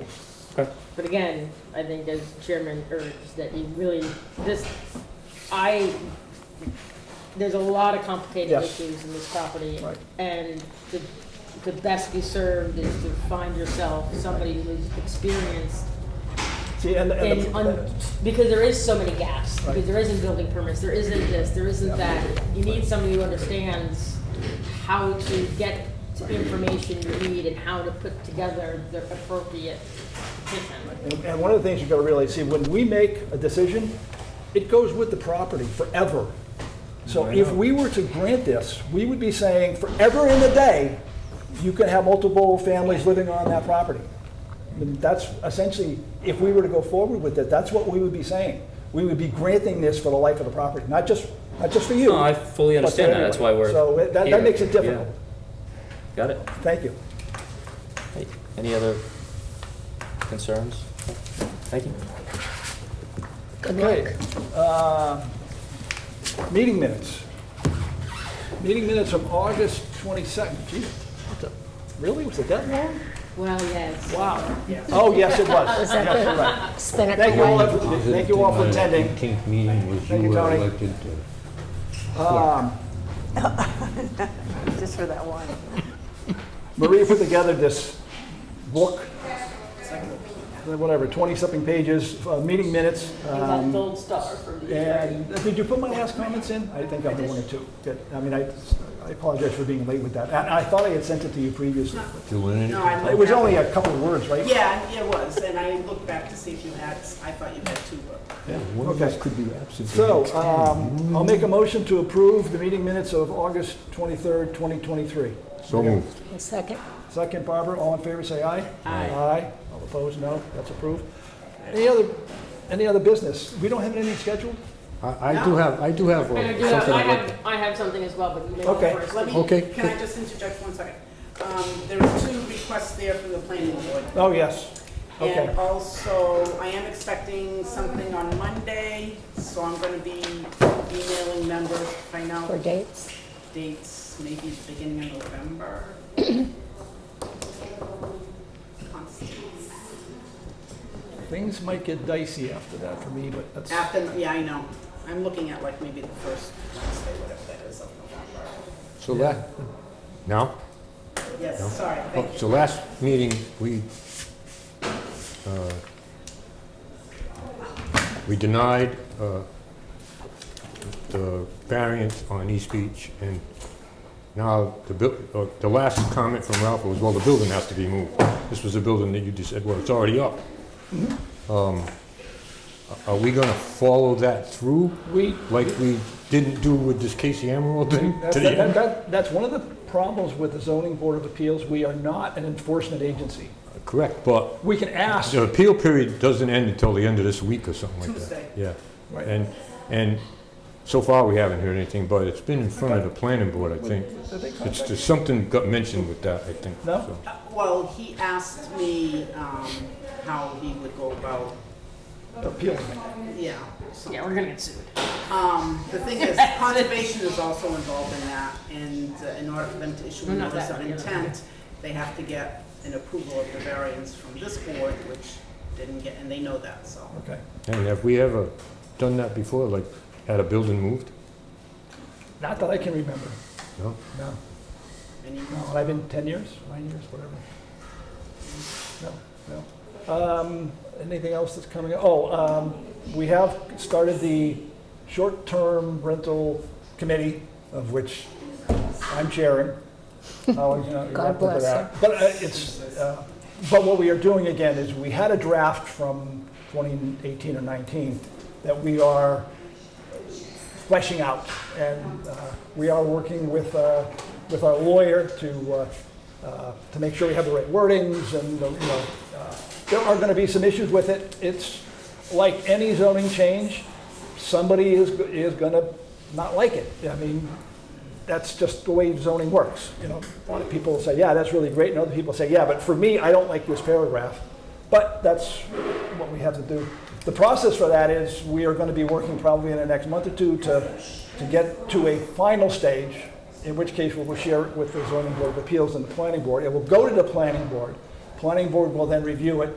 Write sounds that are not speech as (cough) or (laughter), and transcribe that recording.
rules. But again, I think as chairman urged, that you really, this, I, there's a lot of complicated Yes. issues in this property. Right. And the, the best you served is to find yourself somebody who's experienced See, and, and, and, the- un- because there is so many gaps, Right. because there isn't building permits, there isn't this, there isn't that. You need somebody who understands how to get the information you need and how to put together the appropriate petition. and- and one of the things you gotta realize, see, when we make a decision, it goes with the property forever. So if we were to grant this, we would be saying forever in the day, you can have multiple families living on that property. I mean, That's essentially, if we were to go forward with it, that's what we would be saying. We would be granting this for the life of the property, not just, not just for you. No, I fully but for understand that. That's why we're everyone. So it- that, here. that makes it Yeah. difficult. Got it. Thank you. Hey, Any other concerns? Thank you. Okay. uh, Meeting minutes. Meeting minutes from August 22nd. Gee, what the- really? Was it that long? Well, yes. Wow. Oh, yes, it was. Was Yes, you're right. that spin it Thank you all, away? for- thank you all for attending. Eighteenth meeting was Thank you you, were Tony. elected to. Um, Just for that one. Maria put together this book, whatever, 20-something pages, uh, meeting minutes. You um, got a gold star for the And uh, did you put my last comments in? I think I have one or two. Good. I mean, I I apologize for being late with that. And I thought I had sent it to you previously. Do any- No, I It looked was back. only a couple of words, right? Yeah, it was, and I looked back to see if you had, I thought you had two, but. One of us could be absent. So, um, I'll make a motion to approve the meeting minutes of August 23rd, 2023. So moved. A second. Second, Barbara, all in favor, say aye. Aye. Aye. All opposed, no. That's approved. Any other, any other business? We don't have anything scheduled? I I do have, I do have uh, And I do something have, I I'd like, have, I have something as well, but you may want Okay. first. Let me, Okay. can I just interject one second? Um, There are two requests there from the planning board. Oh, yes. Okay. And also, I am expecting something on Monday, so I'm going to be emailing members, to find out For dates? dates, maybe the beginning of (clears throat) November. Constance. Things might get dicey after that for me, but that's, After, yeah, I know. I'm looking at like maybe the first Wednesday, whatever that is of November. so that, No? Yes, sorry, Oh, thank you. So last meeting, we, uh, we denied uh, the variance on East Beach, and now the, buil- uh, the last comment from Ralph was, well, the building has to be moved. This was a building that you just said, well, it's already up. Mm-hmm. Um, a- Are we gonna follow that through, we, like we didn't do with this Casey Emerald thing? That's, to the that, end? that, that's one of the problems with the zoning board of appeals. We are not an enforcement agency. Correct, but We can ask. The appeal period doesn't end until the end of this week or something like that. Tuesday. Yeah. Right. And, and so far, we haven't heard anything, but it's been in front of the planning board, I think. Did they contact It's, just something got mentioned with that, I think. No? so. Uh, Well, he asked me um, how he would go about, Appeal. yeah. so- Yeah, we're gonna get sued. Um, The thing (laughs) is, conservation is also involved in that, and uh, in order for them to issue No, a not notice that of one, yeah. intent, they have to get an approval of the variance from this board, which didn't get, and they know that, so. Okay. And have we ever done that before, like, had a building moved? Not that I can remember. No? No. And you- No, and I've been 10 years, nine years, whatever. No, no. Um, Anything else that's coming up? Oh, um, we have started the short-term rental committee, of which I'm (laughs) chairing. I'll, you know, you're welcome God for bless that. But uh, it's, uh, but what we are doing again is, we had a draft from 2018 or 19 that we are fleshing out. And uh, we are working with, uh, with our lawyer to, uh, uh, to make sure we have the right wordings and, uh, you know, uh, there are going to be some issues with it. It's like any zoning change, somebody is, is going to not like it. I mean, that's just the way zoning works, you know. A lot of people say, yeah, that's really great, and other people say, yeah, but for me, I don't like this paragraph. But that's what we have to do. The process for that is, we are gonna be working probably in the next month or two to, to get to a final stage, in which case we will share it with the zoning board of appeals and the planning board. It will go to the planning board. Planning board will then review it,